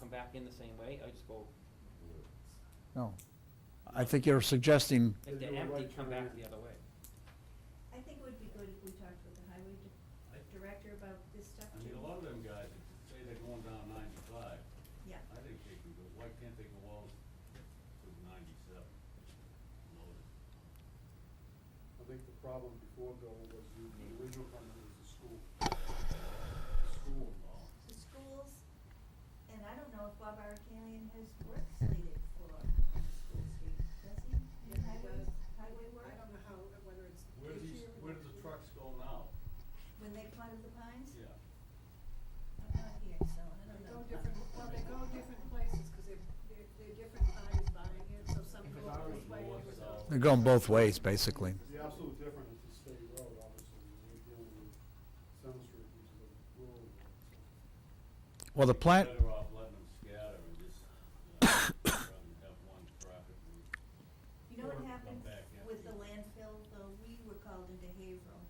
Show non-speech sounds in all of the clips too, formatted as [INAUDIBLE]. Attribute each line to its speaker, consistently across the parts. Speaker 1: come back in the same way, I just go,
Speaker 2: No. I think you're suggesting,
Speaker 1: if they're
Speaker 3: Do a
Speaker 1: empty,
Speaker 3: right
Speaker 1: come
Speaker 3: turn.
Speaker 1: back the other way.
Speaker 4: I think it would be good if we talked with the highway di- director about this stuff
Speaker 3: I
Speaker 4: too.
Speaker 3: mean, a lot of them guys, that say they're going down ninety-five,
Speaker 4: Yeah,
Speaker 3: I think they can go, why can't they go all to ninety-seven? Load it.
Speaker 5: I think the problem before Bill was the the original funding was the school. School involved.
Speaker 4: the schools, and I don't know if Bob Arcanian has work slated for School Street, does he?
Speaker 6: Yeah, he
Speaker 4: Highways-
Speaker 6: does.
Speaker 4: Highway work?
Speaker 6: I don't know how, whether it's
Speaker 3: Where do
Speaker 6: this
Speaker 3: these,
Speaker 6: year or
Speaker 3: where do
Speaker 6: next
Speaker 3: the
Speaker 6: year.
Speaker 3: trucks go now?
Speaker 4: When they planted the pines?
Speaker 3: Yeah.
Speaker 4: I'm not here, so I
Speaker 6: They
Speaker 4: don't
Speaker 6: go
Speaker 4: know.
Speaker 6: different, well, they go different places, cause they're, they're, they're different parties buying it, so some
Speaker 1: If
Speaker 6: go
Speaker 1: it's ours,
Speaker 6: this way,
Speaker 3: more
Speaker 6: others
Speaker 3: so.
Speaker 6: go-
Speaker 2: they're going both ways, basically.
Speaker 5: The absolute difference is the state road, obviously, when you're dealing with Center Street, which is a rural road.
Speaker 2: Well, the plant,
Speaker 3: Better off letting them scatter and just, uh, [COUGHS] rather than have one traffic route.
Speaker 4: You know what
Speaker 3: Or come
Speaker 4: happened
Speaker 3: back after
Speaker 4: with the
Speaker 3: you-
Speaker 4: landfill, though, we were called into Haverhill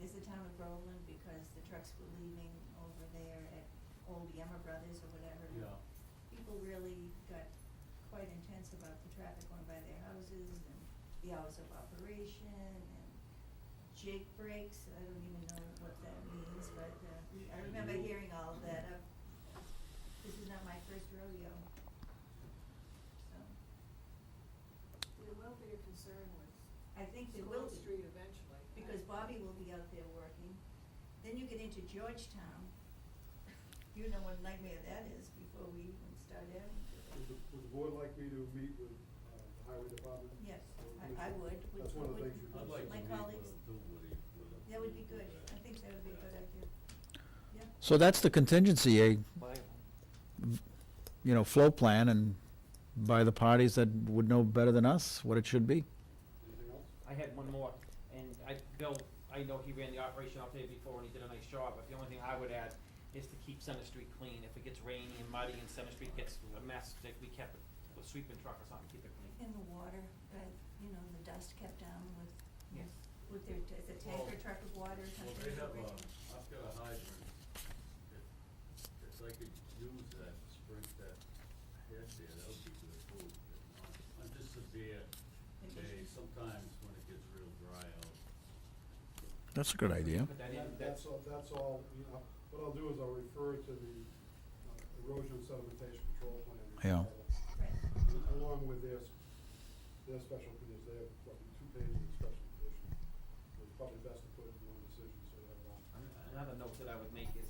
Speaker 4: as the town of Groveland because the trucks were leaving over there at Old Yemmer Brothers or whatever.
Speaker 3: Yeah.
Speaker 4: People really got quite intense about the traffic going by their houses and the hours of operation and jake breaks, I don't even know what that means, but uh, I remember
Speaker 3: You-
Speaker 4: hearing all of that, uh, this is not my first rodeo. So.
Speaker 6: There will be a concern with
Speaker 4: I think there
Speaker 6: School
Speaker 4: will be,
Speaker 6: Street eventually.
Speaker 4: because Bobby will be out there working. Then you get into Georgetown. You know what a nightmare that is before we even start having
Speaker 5: Would
Speaker 4: to.
Speaker 5: the, would the board like me to meet with, uh, the highway department?
Speaker 4: Yes,
Speaker 5: Or
Speaker 4: I-
Speaker 5: commission?
Speaker 4: I would, would-
Speaker 5: That's one of the
Speaker 4: would-
Speaker 5: things you.
Speaker 3: I'd like to
Speaker 4: My
Speaker 3: meet
Speaker 4: colleagues-
Speaker 3: with Dilworthy, with a-
Speaker 4: That would be good,
Speaker 3: with a-
Speaker 4: I think that would be a good idea. Yeah,
Speaker 2: so that's the contingency, a,
Speaker 1: Buy one.
Speaker 2: you know, flow plan and by the parties that would know better than us what it should be.
Speaker 5: Anything else?
Speaker 1: I had one more, and I, Bill, I know he ran the operation out there before and he did a nice job, but the only thing I would add is to keep Center Street clean. If it gets rainy and muddy and Center Street gets a mess, that we kept it, a sweeping truck or something, keep it clean.
Speaker 4: and the water, uh, you know, the dust kept down with,
Speaker 1: Yes.
Speaker 4: with their, t- the tanker
Speaker 3: Well-
Speaker 4: truck of water or
Speaker 3: Well,
Speaker 4: something.
Speaker 3: they have uh, a, I've got a hydrant, if, if I could use that, to sprinkle that head there, that would be good food. I'm just severe, today, sometimes when it gets real dry out,
Speaker 2: That's a good idea.
Speaker 1: Put that in,
Speaker 5: That-
Speaker 1: that's,
Speaker 5: That's, all- that's all, you know, what I'll do is I'll refer to the uh, erosion sedimentation control plan.
Speaker 2: Yeah.
Speaker 4: Right,
Speaker 5: Along with their, s- their special conditions, they have probably two pages of special conditions. It's probably best to put it in one decision, so that, uh,
Speaker 1: an- another note that I would make is,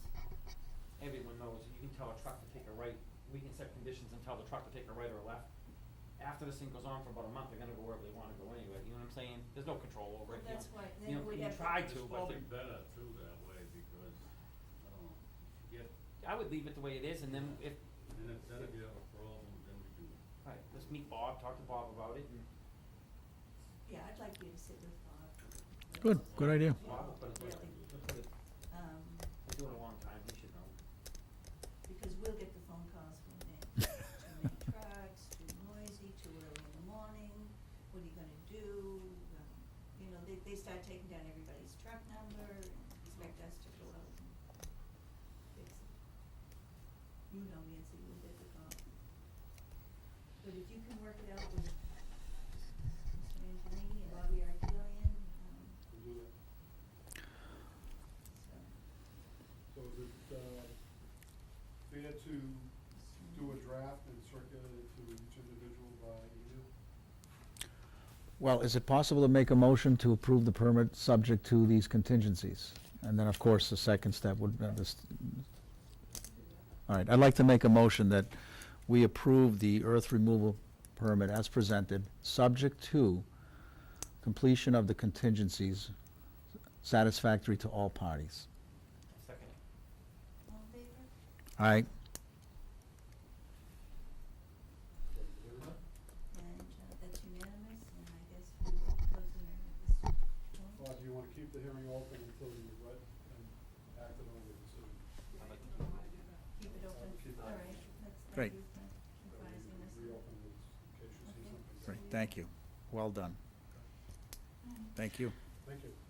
Speaker 1: everyone knows, you can tell a truck to take a right, we can set conditions and tell the truck to take a right or a left. After this thing goes on for about a month, they're gonna go wherever they wanna go anyway, you know what I'm saying? There's no control over it,
Speaker 4: Well,
Speaker 1: you know?
Speaker 4: that's why,
Speaker 1: You
Speaker 4: then
Speaker 1: know,
Speaker 4: we'd
Speaker 1: you
Speaker 4: have to.
Speaker 1: try
Speaker 3: it's
Speaker 1: to, but
Speaker 3: probably
Speaker 1: the-
Speaker 3: better too that way, because, I don't know, if you get,
Speaker 1: I would leave it the way it is, and then if,
Speaker 3: and if, then if you have a problem, then we do.
Speaker 1: all right, let's meet Bob, talk to Bob about it, and
Speaker 4: Yeah, I'd like you to sit with Bob.
Speaker 2: Good, good idea.
Speaker 1: Bob will put it,
Speaker 4: Really,
Speaker 1: he'll put it,
Speaker 4: um,
Speaker 1: I do it a long time, he should know.
Speaker 4: because we'll get the phone calls from them. too many trucks, too noisy, too early in the morning, what are you gonna do? Um, You know, they, they start taking down everybody's truck number and expect us to go out and fix it. You know Nancy, we'll get the call. But if you can work it out with Mr. Angelini and Bobby Argillian, um,
Speaker 5: we'll do that.
Speaker 4: so.
Speaker 5: So is it, uh, fair to do a draft and circulate it to each individual by email?
Speaker 2: Well, is it possible to make a motion to approve the permit subject to these contingencies? And then, of course, the second step would, uh, this, all right, I'd like to make a motion that we approve the earth removal permit as presented, subject to completion of the contingencies satisfactory to all parties.
Speaker 1: Second, it.
Speaker 4: All in favor?
Speaker 2: All right,
Speaker 5: Is that clear?
Speaker 4: And uh, that's unanimous, and I guess we will close the hearing at this point.
Speaker 5: Or do you wanna keep the hearing open until you read and acted on the decision?
Speaker 6: Yeah,
Speaker 1: I'd like
Speaker 6: you don't wanna do that.
Speaker 4: Keep it open,
Speaker 5: Keep it
Speaker 4: all
Speaker 5: open.
Speaker 2: Great.
Speaker 4: right, that's, thank you for advising us.
Speaker 5: Reopen it in case you see
Speaker 4: Okay.
Speaker 5: something.
Speaker 2: great, thank you. Well done.
Speaker 4: Um,
Speaker 2: Thank you.
Speaker 5: Thank you.
Speaker 4: um,